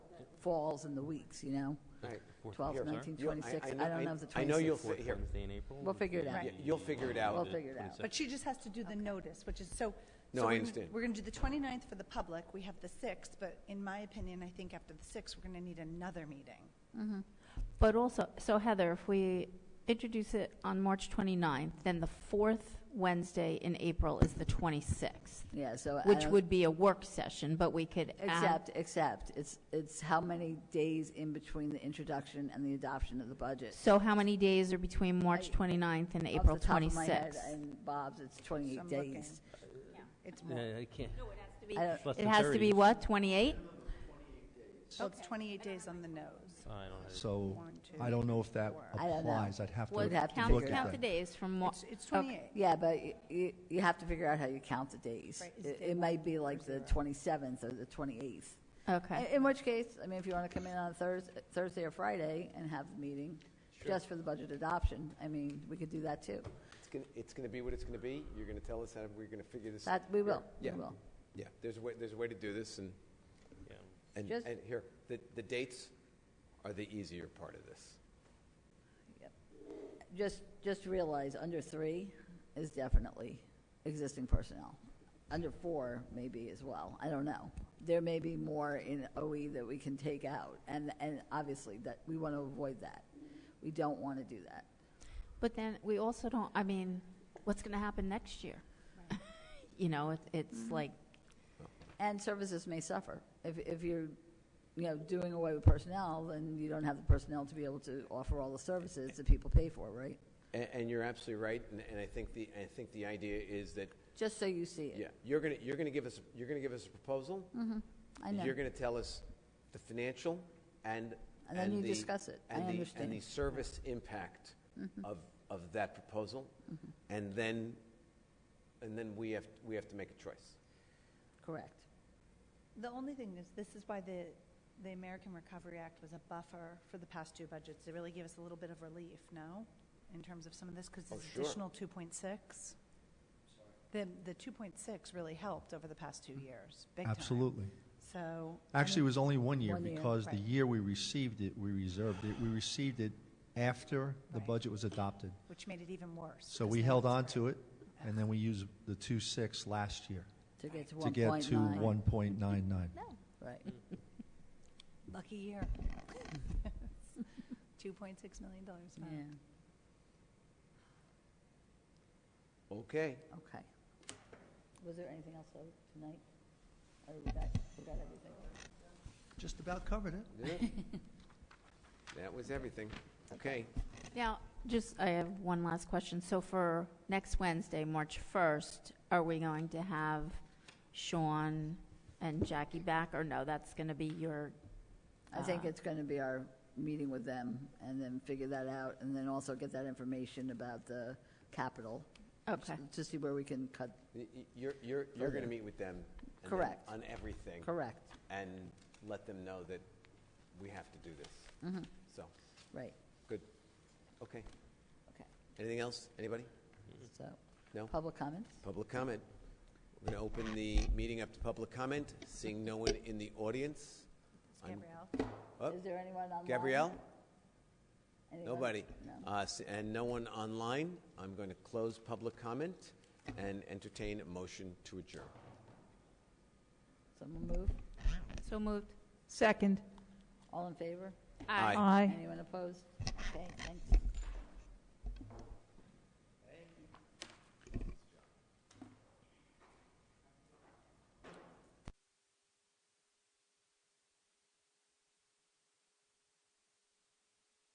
falls in the weeks, you know? Right. 12, Here, 19, you'll- I- 26, I I know- don't know if the I know you'll 26th. fi- here. Wednesday in April? We'll figure it out. Y- You'll figure it out. We'll figure it out. Twenty-sixth. But she just has to do the notice, which is, so. No, so I we- understand. We're going to do the 29th for the public, we have the 6th, but in my opinion, I think after the 6th, we're going to need another meeting. But also, so Heather, if we introduce it on March 29th, then the fourth Wednesday in April is the 26th, Yeah, so. I which don't- would be a work session, but we could add. Except, except, it's, it's how many days in between the introduction and the adoption of the budget. So how many days are between March 29th and April Off the top of my head, 26th? And Bob's, it's So 28 I'm days. It's Yeah, more, I can't. I don't- Less It than has to 30. be what, 28? so it's 28 days on the nose. I don't have it. So One, two, I don't know if that I don't know. applies. I'd have to Well, look We'd have at to Count look at count that. the days from what? It's- It's 28. Yeah, but y- you, you have to figure out how you count the days. Right, is It day it one might be like the 27th or the 28th. Oh, Okay. In- In which case, I mean, if you want to come in on Thursday, Thursday or Friday and have the meeting just for the budget adoption, I mean, we could do that too. It's gonna, it's gonna be what it's gonna be. You're gonna tell us how we're gonna figure this. That, we will, we Yeah. will. Yeah, there's a way, there's a way to do this and, Yeah. and, Just- and here, the, the dates are the easier part of this. Just, just realize, under three is definitely existing personnel. Under four maybe as well, I don't know. There may be more in OE that we can take out, and, and obviously that, we want to avoid that. We don't want to do that. But then we also don't, I mean, what's going to happen next year? You know, it- it's like, And services may suffer. If, if you're, you know, doing away with personnel, then you don't have the personnel to be able to offer all the services that people pay for, right? And, and you're absolutely right, and, and I think the, I think the idea is that, Just so you see yeah, it. you're gonna, you're gonna give us, you're gonna give us a proposal. Mm-hmm. I know. You're gonna tell us the financial and. And then you the- discuss it. I and the- understand. Mm-hmm. And the service impact of, of that proposal. And then, and then we have, we have to make a choice. Correct. The only thing is, this is why the, the American Recovery Act was a buffer for the past two budgets. It really gave us a little bit of relief, no? In terms of some of this, because Oh, this sure. additional 2.6. The, the 2.6 really helped over the past two years, big time. Absolutely. So. I Actually, it mean, was only one year One year, because the right. year we received it, we reserved it. We received it after the Right. budget was adopted. Which made it even worse. So because we now held it's on great. to it, and then we used the two six last year To get to to 1.9. get to 1.99. Right. Lucky year. $2.6 million. dollars, Yeah, Mm-hmm. wow. Okay. okay. Was there anything else though, tonight? Or we got, we got everything? Just about covered it. Yeah. That was everything. Okay. now, just, I have one last question. So for next Wednesday, March 1st, are we going to have Sean and Jackie back? Or no, that's going to be your, I think Uh, it's going to be our meeting with them and then figure that out and then also get that information about the capital. Okay. to- To see where we can cut, Y- y- You're, you're, you're going to meet with them. and then Correct. On everything. correct, And let them know that we have to do this. Mm-hmm. So, right, good. Okay. okay, Anything else? Anybody? so, No? public comments? Public comment. We're going to open the meeting up to public comment, seeing no one in the audience. It's I'm- Gabrielle. Oh, Is there anyone online? Gabrielle? Anyone? Nobody. No. Uh, s- And no one online. I'm going to close public comment and entertain a motion to adjourn. Someone move? so moved? Second. All in favor? Aye. Aye. Anyone opposed? Okay, thank you.